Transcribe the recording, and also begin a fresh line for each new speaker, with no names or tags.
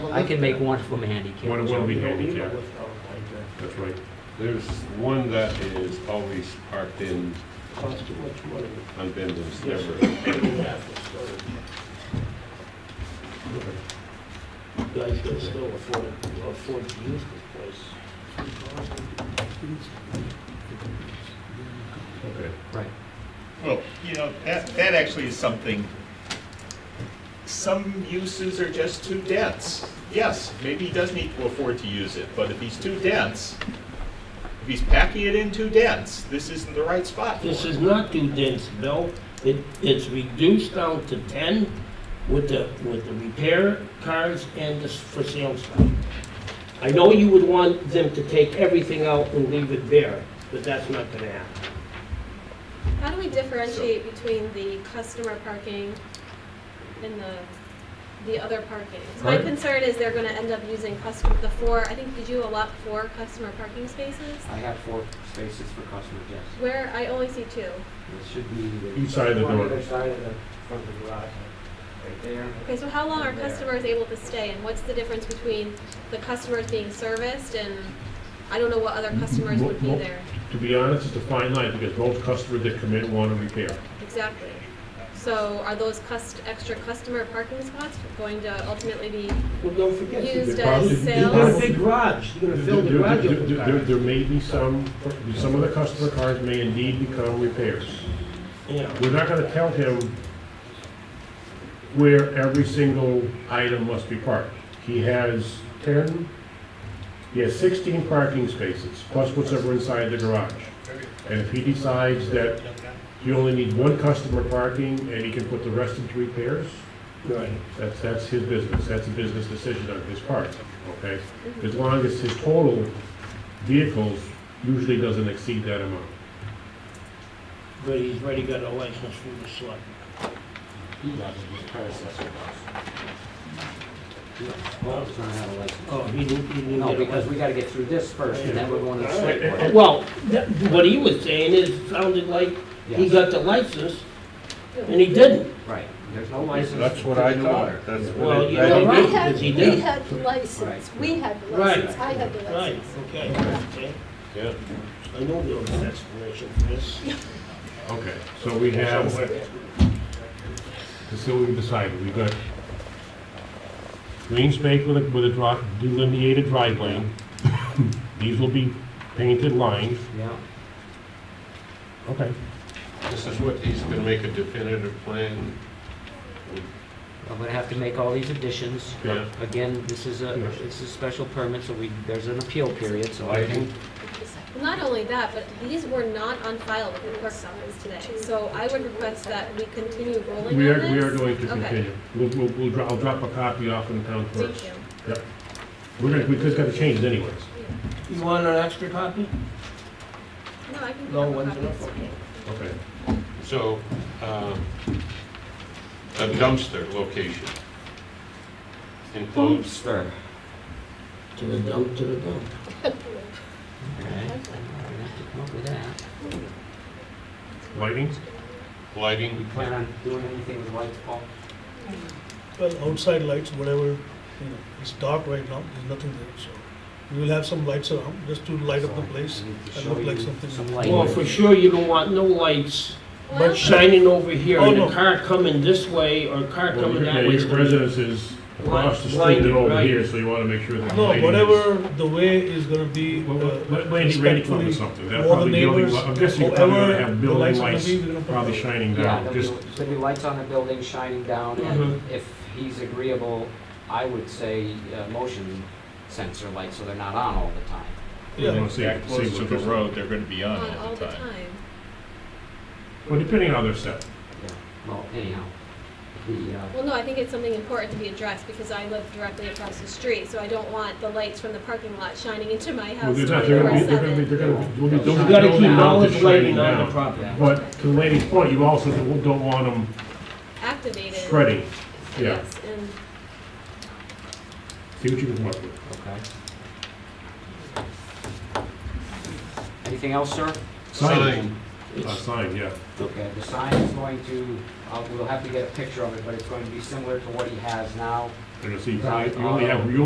I can make one from handicap.
One will be handicapped,
That's
that's right.
There's one that is always parked in
too much money.
on Bendon's,
Yes.
never.
Guys can still afford, afford to use this place.
Okay.
Right.
Well, you know, that, that actually is something, some uses are just too dense. Yes, maybe he does need to afford to use it, but if he's too dense, if he's packing it in too dense, this isn't the right spot for
This
it.
is not too dense, Bill. It, it's reduced down to ten with the, with the repair cars and the s- for sale stuff. I know you would want them to take everything out and leave it bare, but that's not gonna happen.
How do we differentiate between the customer parking and the, the other parking? 'Cause My
Right.
concern is they're gonna end up using customer, the four, I think, did you allot four customer parking spaces?
I have four spaces for customers, yes.
Where, I only see two.
It should be.
Each side of the
one
door.
Other side of the, front of the garage, right there.
Okay, so how long are
There.
customers able to stay, and what's the difference between the customers being serviced and, I don't know what other customers would be
Mo- mo-
there?
To be honest, it's a fine line, because most customers that come in want to repair.
Exactly. So are those cust, extra customer parking spots going to ultimately be
Well, don't forget. you
used
they probably-
as
they
You got a
sales?
big garage, you're gonna fill the
There- there-
garage up
there-
with
There
cars.
there may be some, some of the customer cars may indeed become repairs.
Yeah,
We're not gonna tell him where every single item must be parked. He has ten, he has sixteen parking spaces, plus whatever inside the garage. And if he decides that you only need one customer parking and he can put the rest into repairs,
right.
that's, that's his business, that's a business decision on his part, okay? As long as his total vehicles usually doesn't exceed that amount.
But he's already got a license from the select.
He does, his predecessor does. Well, it's gonna have a license.
Oh, he didn't, he didn't
No,
get a
because
license.
we gotta get through this first, and then we're going to the
Alright,
select board.
Well, that- what he was saying is, sounded like he
Yes.
got the license, and he didn't.
Right, there's no license.
That's what
for the
I know.
car.
That's what
Well, you
Well,
know,
I
right,
had,
because he
we
did.
had the license, we had the
Right.
license, I had the
Right,
license.
okay, okay.
Yeah.
I know there was an explanation for this.
Okay, so we have, so we've decided, we've got green space with a, with a dri- delineated drive lane. These will be painted lines.
Yeah,
Okay.
This is what, he's gonna make a definitive plan.
I'm gonna have to make all these additions.
Yeah.
Again, this is a,
Yeah.
this is a special permit, so we, there's an appeal period, so I
I
can,
think
Not only that, but these were not on file with the clerk office today, so I would request that we continue rolling on
We are, we are
this.
going to
Okay.
continue. We'll, we'll, we'll, dro- I'll drop a copy off in the town clerk.
Thank you.
We're gonna, we just gotta change it anyways.
You want an extra copy?
No, I can.
No,
have a
one's
copy.
enough,
It's
okay.
Okay.
So, um, a dumpster location includes,
sure.
To the dump, to the dump.
okay? I'm gonna have to come up with that.
Lighting?
You
lighting,
plan on doing anything with lights, Paul?
Well, outside lights, whatever, you know, it's dark right now, there's nothing there, so we will have some lights around, just to light up the place.
I need to
and
show
look like
you
something-
Some lighting.
Well, for sure, you don't want no lights
Well,
shining over here, and
Oh,
a
no.
car coming this way, or a car
Well,
coming
your- yeah,
that way.
your residence is across the street
Blinded,
and over
right.
here, so you wanna make sure that.
No,
lighting is-
whatever the way is gonna be.
Well,
uh,
Let let Randy, Randy come up with
respectfully,
something. That
all the
probably building,
neighbors,
I'm guessing you probably
however
gonna have
the
building
lights are gonna
lights
be, we're gonna put
probably
those.
shining
Yeah,
down,
there'll be,
just,
there'll be lights on the building shining down, and if he's agreeable, I would say uh, motion sensor lights, so they're not on all the time.
you
Yeah.
know, that close to the road, Oh, they're gonna be on
On
all the time.
well, depending on how they're set.
Well, anyhow, the, uh,
Well, no, I think it's something important to be addressed because I live directly across the street, so I don't want the lights from the parking lot shining into my
Well,
house
they're not, they're gonna be, they're gonna be,
24/7.
they're gonna be, there'll be-
You
there'll be
gotta
building
keep all
mounted
this
shining
lighting on the
down.
property.
But to the lady's point, you also don't don't want them
Activated.
spreading. Yeah,
Yes, and
see what you can come up with.
okay. Anything else, sir?
Sign,
Sign.
a sign, yeah.
Okay, the sign is going to, uh, we'll have to get a picture of it, but it's going to be similar to what he has now.
Uh,
They're gonna see, you only have, you